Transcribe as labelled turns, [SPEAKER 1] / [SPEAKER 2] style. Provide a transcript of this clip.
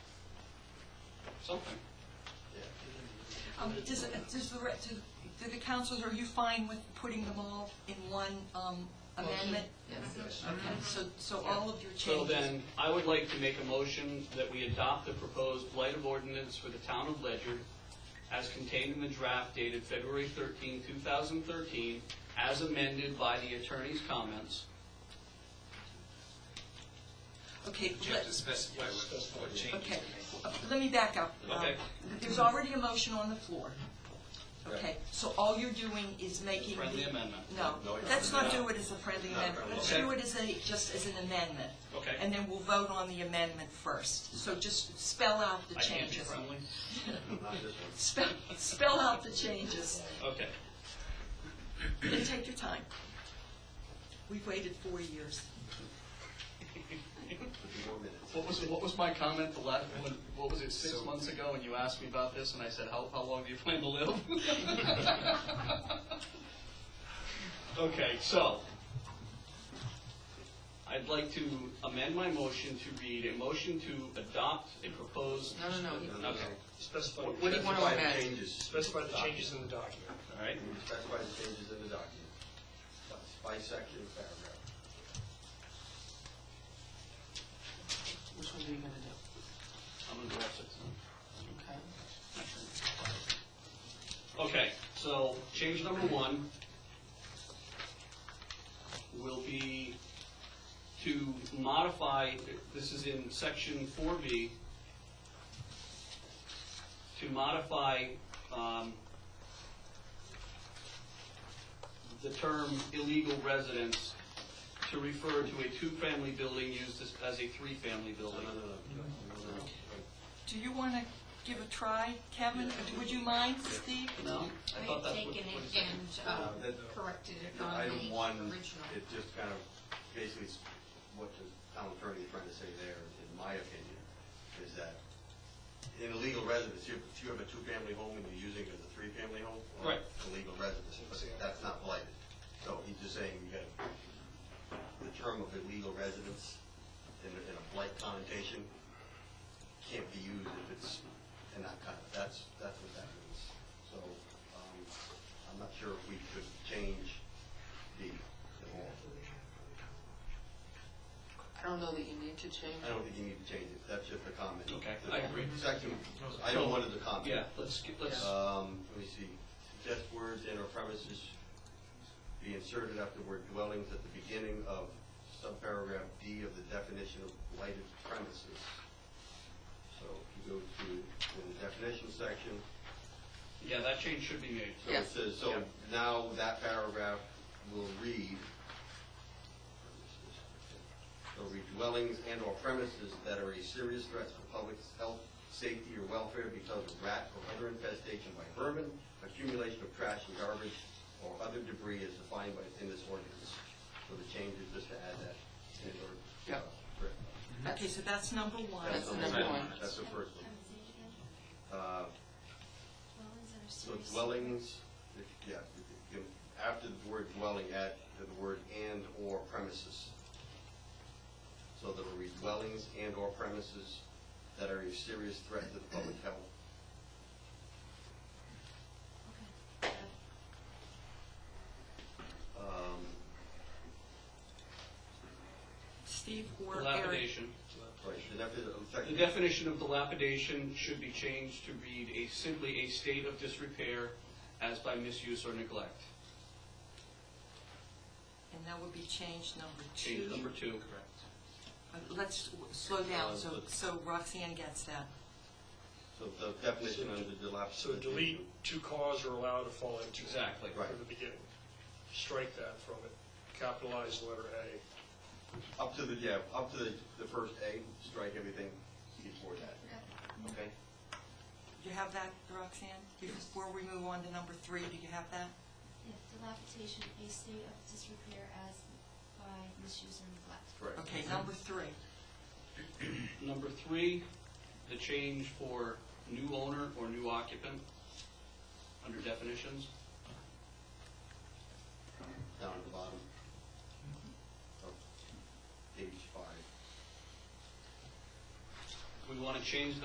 [SPEAKER 1] something.
[SPEAKER 2] Um, Does, does the, re- do- do the councils, are you fine with putting them all in one um, amendment?
[SPEAKER 3] Yes.
[SPEAKER 2] Okay, so, so all of your
[SPEAKER 1] So
[SPEAKER 2] changes.
[SPEAKER 1] then, I would like to make a motion that we adopt the proposed blight of ordinance for the town of Ledger as contained in the draft dated February 13, 2013, as amended by the attorney's comments.
[SPEAKER 2] Okay,
[SPEAKER 3] You have
[SPEAKER 2] let,
[SPEAKER 3] to specify what, what changes
[SPEAKER 2] okay,
[SPEAKER 3] you
[SPEAKER 2] Uh, let me back up. Um,
[SPEAKER 1] Okay.
[SPEAKER 2] There's already a motion on the floor. Okay,
[SPEAKER 3] Right.
[SPEAKER 2] so all you're doing is making the.
[SPEAKER 1] Friendly amendment.
[SPEAKER 2] No,
[SPEAKER 3] No, you're
[SPEAKER 2] let's
[SPEAKER 3] not.
[SPEAKER 2] not do it as a friendly
[SPEAKER 3] No,
[SPEAKER 2] amendment.
[SPEAKER 3] no,
[SPEAKER 2] Let's
[SPEAKER 1] okay.
[SPEAKER 2] do it as a, just as an amendment.
[SPEAKER 1] Okay.
[SPEAKER 2] And then we'll vote on the amendment first. So just spell out the
[SPEAKER 1] I can't be
[SPEAKER 2] changes.
[SPEAKER 1] friendly?
[SPEAKER 2] Spell, spell out the changes
[SPEAKER 1] Okay.
[SPEAKER 2] and take your time. We've waited four years.
[SPEAKER 1] What was, what was my comment, the last, one? what was it, six
[SPEAKER 3] So-
[SPEAKER 1] months ago, when you asked me about this, and I said, how, how long do you plan to live? Okay, so, I'd like to amend my motion to read, a motion to adopt a proposed.
[SPEAKER 4] No, no, no, you-
[SPEAKER 1] Okay,
[SPEAKER 5] Specify.
[SPEAKER 4] What do you want to
[SPEAKER 5] specify the
[SPEAKER 4] amend?
[SPEAKER 5] changes. Specify the changes in the document.
[SPEAKER 1] all right,
[SPEAKER 5] Specify the changes in the document. By section, paragraph.
[SPEAKER 4] Which one are you gonna do?
[SPEAKER 1] I'm gonna go off six now.
[SPEAKER 4] Okay.
[SPEAKER 1] Okay, so change number one will be to modify, this is in section four B, to modify, um, the term illegal residence to refer to a two-family building used as- as a three-family building.
[SPEAKER 2] Do you want to give a try, Kevin? Would you mind, Steve?
[SPEAKER 1] No? I thought
[SPEAKER 6] I've
[SPEAKER 1] that's what-
[SPEAKER 6] taken
[SPEAKER 1] what
[SPEAKER 6] it
[SPEAKER 1] it said.
[SPEAKER 6] and
[SPEAKER 5] Uh,
[SPEAKER 6] um,
[SPEAKER 5] that-
[SPEAKER 6] corrected it
[SPEAKER 5] Yeah,
[SPEAKER 6] on
[SPEAKER 5] Item one,
[SPEAKER 6] the original.
[SPEAKER 5] it just kind of basically is what the town attorney is trying to say there, in my opinion, is that in a legal residence, you- if you have a two-family home and you're using it as a three-family home, well,
[SPEAKER 1] Right.
[SPEAKER 5] it's a legal residence, but that's not blighted. So he's just saying you got the term of illegal residence in a- in a blight connotation can't be used if it's in that kind of, that's, that's what that means. So, um, I'm not sure if we could change the, the law.
[SPEAKER 4] I don't know that you need to change.
[SPEAKER 5] I don't think you need to change it, that's just a comment.
[SPEAKER 1] Okay, I agree.
[SPEAKER 5] Second, I don't want it to comment.
[SPEAKER 1] Yeah, let's, get- let's,
[SPEAKER 5] Um, let me see, suggest words and or premises be inserted after the word dwellings at the beginning of subparagraph D of the definition of lighted premises. So if you go to the definition section,
[SPEAKER 1] yeah, that change should be made.
[SPEAKER 5] so
[SPEAKER 4] Yeah.
[SPEAKER 5] it says, so
[SPEAKER 1] Yeah.
[SPEAKER 5] now that paragraph will read, so read dwellings and or premises that are a serious threat to the public's health, safety, or welfare because of rat or other infestation by vermin, accumulation of trash and garbage, or other debris as defined by, in this ordinance. So the change is just to add that and or.
[SPEAKER 4] Yeah.
[SPEAKER 2] Okay, so that's number one.
[SPEAKER 4] Oh, That's the
[SPEAKER 5] the
[SPEAKER 4] number
[SPEAKER 5] second
[SPEAKER 4] one.
[SPEAKER 5] That's the first one. Uh, So
[SPEAKER 6] So
[SPEAKER 5] dwellings, if- yeah, if- if- after the word dwelling, add the word and/or premises. So there will be dwellings and/or premises that are a serious threat to the public health. Um,
[SPEAKER 2] Steve or Eric?
[SPEAKER 1] Dilapidation.
[SPEAKER 5] Right, the defi- the
[SPEAKER 1] The
[SPEAKER 5] second-
[SPEAKER 1] definition of dilapidation should be changed to read a, simply a state of disrepair as by misuse or neglect.
[SPEAKER 2] And that would be change number two.
[SPEAKER 1] Change number two.
[SPEAKER 2] Uh, Let's w- slow down,
[SPEAKER 5] Uh,
[SPEAKER 2] so,
[SPEAKER 5] but-
[SPEAKER 2] so Roxanne gets that.
[SPEAKER 5] So the definition under
[SPEAKER 3] So
[SPEAKER 5] dilapidation.
[SPEAKER 3] delete to cause or allow to fall into.
[SPEAKER 1] Exactly.
[SPEAKER 5] Right.
[SPEAKER 3] From the beginning. Strike that from it. Capitalize letter A.
[SPEAKER 5] Up to the, yeah, up to the the first A, strike everything before that. Okay?
[SPEAKER 2] You have that, Roxanne? Before we move on to number three, do you have that?
[SPEAKER 7] If dilapidation, a state of disrepair as by misuse or neglect.
[SPEAKER 5] Correct.
[SPEAKER 2] Okay, number three.
[SPEAKER 1] Number three, the change for new owner or new occupant, under definitions.
[SPEAKER 5] down at the bottom of page five.
[SPEAKER 1] We want to change